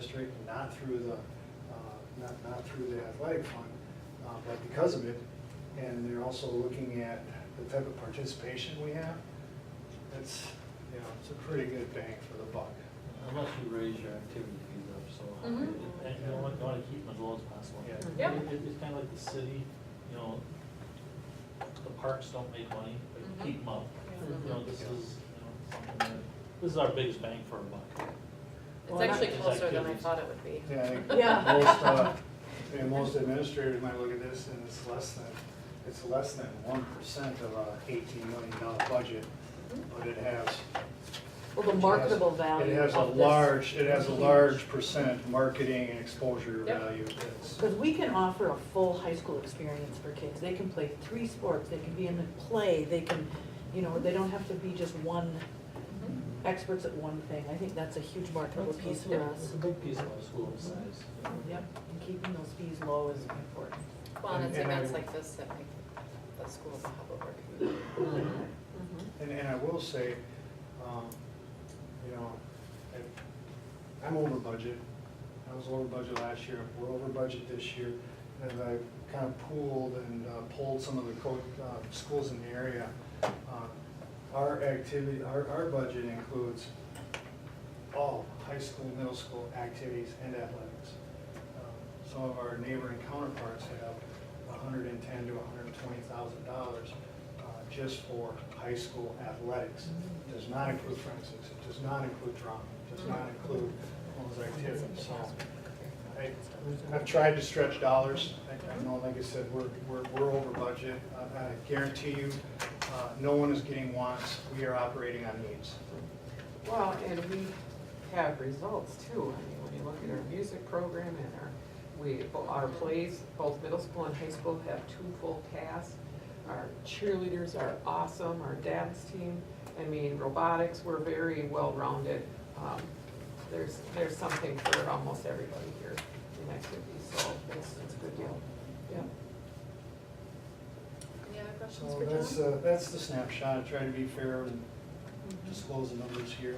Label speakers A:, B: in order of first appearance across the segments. A: district, not through the, uh, not, not through the athletic fund, uh, but because of it. And they're also looking at the type of participation we have. It's, you know, it's a pretty good bang for the buck.
B: How much you raise your activity fees up so high?
C: Mhm.
B: And you want, you want to keep them as low as possible.
A: Yeah.
C: Yeah.
B: It- it- It's kind of like the city, you know, the parks don't make money,
C: Mhm.
B: but keep them up.
C: Yeah.
B: You know, this is, you know, something that, this is our biggest bang for our buck.
C: It's
B: Well,
C: actually
B: it's
C: closer than I
B: activities.
C: thought it would be.
A: Yeah, I think
D: Yeah.
A: most, uh, and most administrators might look at this and it's less than, it's less than one percent of a eighteen million dollar budget, but it has.
D: Well, the marketable value
A: It has a
D: of this-
A: large, it has a
D: Huge.
A: large percent marketing and exposure
C: Yep.
A: value that's.
D: Because we can offer a full high school experience for kids. They can play three sports, they can be in the play, they can, you know, they don't have to be just one, experts at one thing. I think that's a huge marketable piece for
B: It's
D: us.
B: a big piece of our school size.
D: Yep, and keeping those fees low is important.
C: Well, and it's
A: And I-
C: events like this that make the school the hub of our community.
A: Mm-hmm. And, and I will say, um, you know, I- I'm over budget. I was over budget last year, we're over budget this year. And I kind of pooled and uh, pulled some of the co, uh, schools in the area. Uh, Our activity, our, our budget includes all high school, middle school activities and athletics. Um, Some of our neighboring counterparts have hundred and ten to hundred and twenty thousand dollars uh, just for high school athletics. It Does not include forensics, it does not include drama, it does not include all those activities, so. I- I've tried to stretch dollars, I I know, like I said, we're, we're, we're over budget. I- I guarantee you, uh, no one is getting wants, we are operating on needs.
E: Well, and we have results too. I mean, when you look at our music program and our, we, our plays, both middle school and high school have two full casts. Our cheerleaders are awesome, our dance team, I mean, robotics, we're very well-rounded. Um, There's, there's something for almost everybody here in activities, so it's, it's a good deal. Yeah.
C: Any other questions
A: So
C: for
A: that's,
C: John?
A: uh, that's the snapshot, I try to be fair and disclose the numbers here.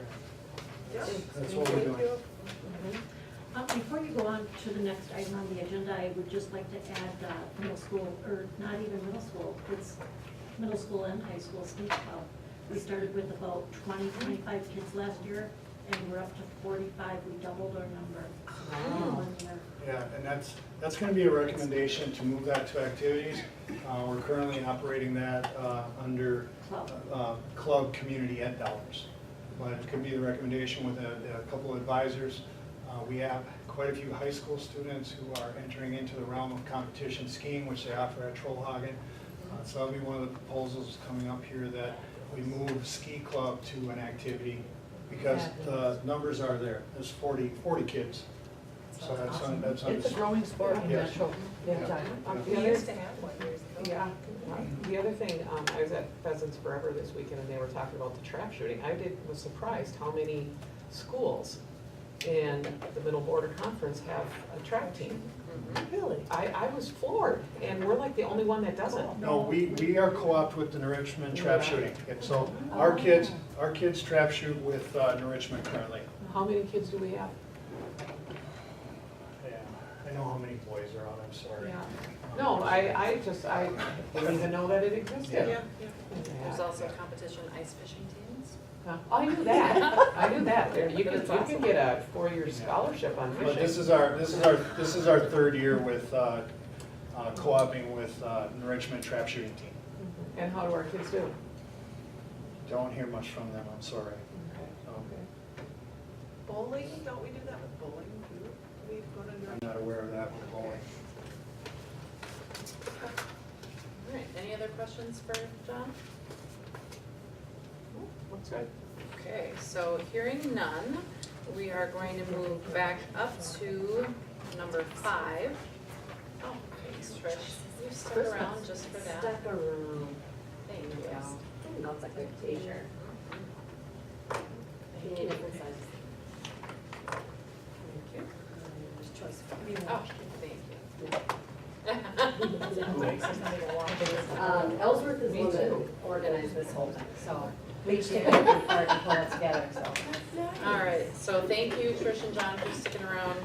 C: Yeah.
A: That's what we're
C: Thank
A: doing.
C: you.
F: Uh, Before you go on to the next item on the agenda, I would just like to add uh, middle school, or not even middle school, it's middle school and high school speech club. We started with about 20, 25 kids last year, and we're up to 45. We doubled our number in one year.
A: Yeah, and that's, that's gonna be a recommendation to move that to activities. Uh, we're currently operating that, uh, under,
F: Club.
A: uh, club community ed dollars. But it could be the recommendation with a, a couple of advisors. Uh, we have quite a few high school students who are entering into the realm of competition skiing, which they offer at Trollhagen. Uh, So that'll be one of the proposals coming up here that we move ski club to an activity because the numbers are there. There's 40 40 kids. So that's on, that's on.
D: It's a growing sport in
A: Yes.
D: Metro.
A: Yeah.
D: Yeah, John.
E: Um,
C: We
E: the other-
C: used to have one years ago.
E: Yeah, the other thing, um, I was at Pheasants Forever this weekend and they were talking about the trap shooting. I did, was surprised how many schools in the Middle Border Conference have a track team.
A: Mm-hmm.
D: Really?
E: I, I was floored and we're like the only one that doesn't.
A: No, we, we are co-op with the New Richmond trap shooting. And so our kids, our kids trap shoot with uh, New Richmond currently.
E: How many kids do we have?
A: Yeah, I know how many boys are on, I'm sorry.
E: Yeah. No, I, I just, I didn't even know that it existed.
A: Yeah.
C: There's also a competition ice fishing teams.
E: Huh. I knew that, I knew that. There- You could,
C: That's
E: you
C: awesome.
E: could get a four-year scholarship on
A: But this
E: fishing.
A: is our, this is our, this is our third year with, uh, uh, co-oping with uh, New Richmond trap shooting team.
E: And how do our kids do?
A: Don't hear much from them, I'm sorry. Um,
G: Bowling, don't we do that with bowling too? We go to
A: I'm not aware of that with bowling.
C: All right, any other questions for John?
E: Looks good.
C: Okay, so hearing none, we are going to move back up to number five. Oh, thanks, Trish. You stuck around just for that.
D: Stuck around.
C: Thank you.
H: That's a good t-shirt.
C: Thank you.
H: Different sizes.
C: Thank
H: There's choice.
C: you. Oh, thank you.
H: Um, Ellsworth is the one that organized this whole thing, so We just take a look at it and pull it together, so.
C: All right, so thank you, Trish and John, for sticking around.